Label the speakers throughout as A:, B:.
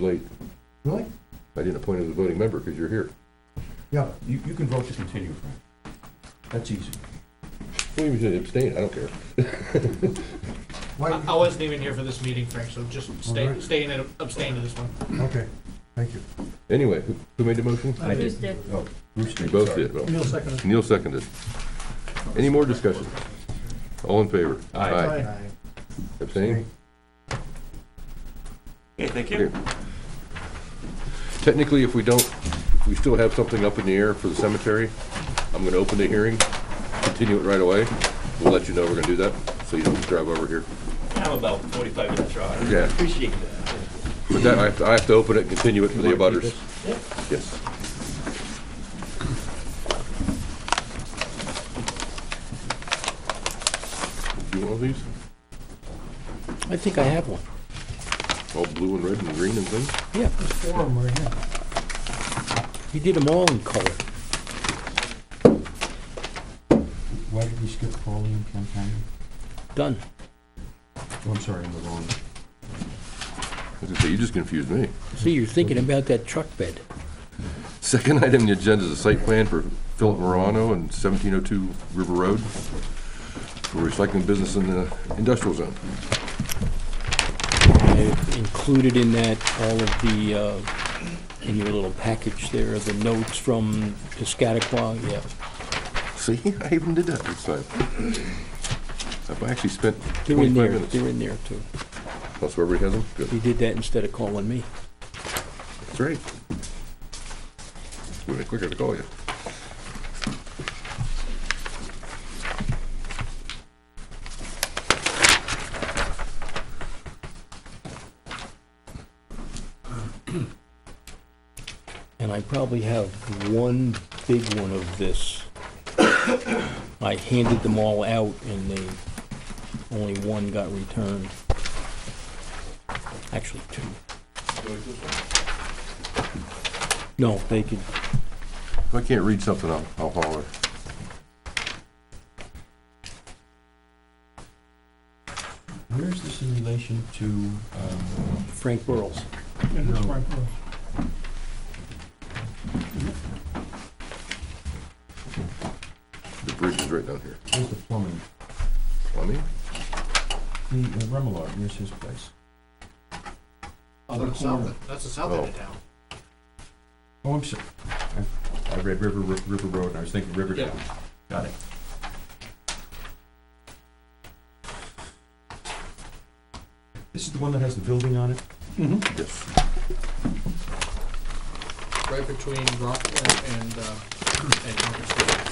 A: late.
B: Really?
A: I didn't appoint him as a voting member because you're here.
B: Yeah,
C: You, you can vote to continue, Frank. That's easy.
A: Well, you should abstain, I don't care.
B: why,
D: I I wasn't even here for this meeting, Frank, so just stay,
B: Alright.
D: stay and abstain to this one.
B: okay, thank you.
A: Anyway, who, who made the motion?
C: I
E: Bruce did.
C: Oh, Bruce
A: You
C: did,
A: both
C: sorry.
A: did, well,
B: Neil seconded.
A: Neil seconded. Any more discussion? All in favor?
C: Aye.
A: Abstain?
F: Okay, thank you.
A: Okay. Technically, if we don't, if we still have something up in the air for the cemetery, I'm gonna open the hearing, continue it right away. We'll let you know we're gonna do that, so you don't drive over here.
F: I'm about 45 minutes short.
A: Yeah.
F: Appreciate that.
A: But that, I have to, I have to open it, and continue it for the
C: wanna keep
A: abutters. Yes. Do you want these?
G: I think I have one.
A: All blue and red and green and things?
G: Yeah,
B: Four of them right here.
G: he did them all in color.
C: Why did we skip Crowley and Campanion?
G: Done.
C: Oh, I'm sorry, I'm the wrong.
A: I was gonna say, you just confused me.
G: See, you're thinking about that truck bed.
A: Second item on the agenda is a site plan for Philip Morano and 1702 River Road for recycling business in the industrial zone.
G: I included in that all of the, uh, in your little package there, the notes from Piscataqua, yeah.
A: See, I even did that this time. I've actually spent
G: They're
A: 25
G: in there,
A: minutes.
G: they're in there too.
A: That's where everybody has them? Good.
G: He did that instead of calling me.
A: That's right. We'll be quicker to call you.
G: And I probably have one big one of this. I handed them all out and they, only one got returned. Actually, two. No, they could,
A: If I can't read something, I'll, I'll holler.
C: Where is this in relation to, um,
G: Frank Burles.
B: Yeah, that's right.
A: The bridge is right down here.
C: where's the plumbing?
A: Plumbing?
C: The uh, Remillard, where's his place?
D: That's the south end- That's the south end of town.
C: Oh, I'm sorry. I- I read River, Ri- River Road, and I was thinking Riverdale. Got it. This is the one that has the building on it?
A: Yes.
D: right between Rockland and, uh, and Concord Station.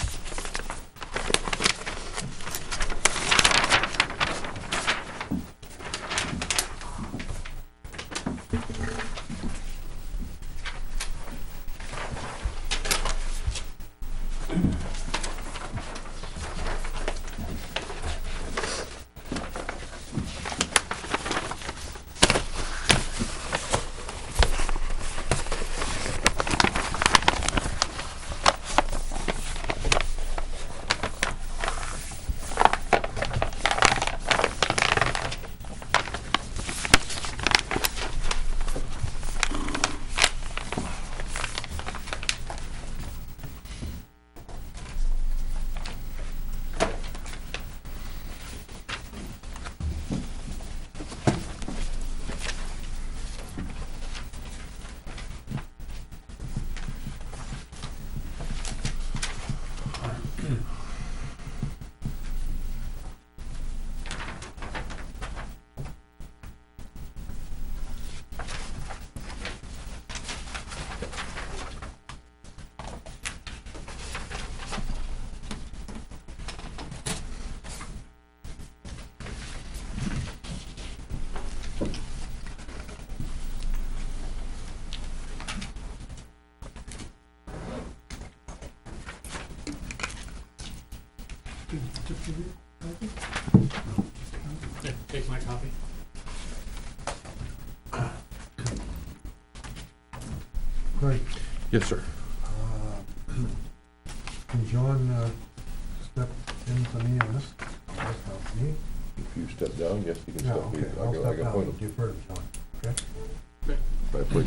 D: Here, Take my copy.
B: Great.
A: Yes, sir.
B: Uh, Can John uh, step in for me on this? That's not me.
A: If you step down, yes, you can
B: No,
A: step.
B: Oh, okay,
A: in. I
B: I'll
A: can- I
B: step
A: can
B: down,
A: point 'em.
B: defer to John, okay?
D: Okay.
A: by putting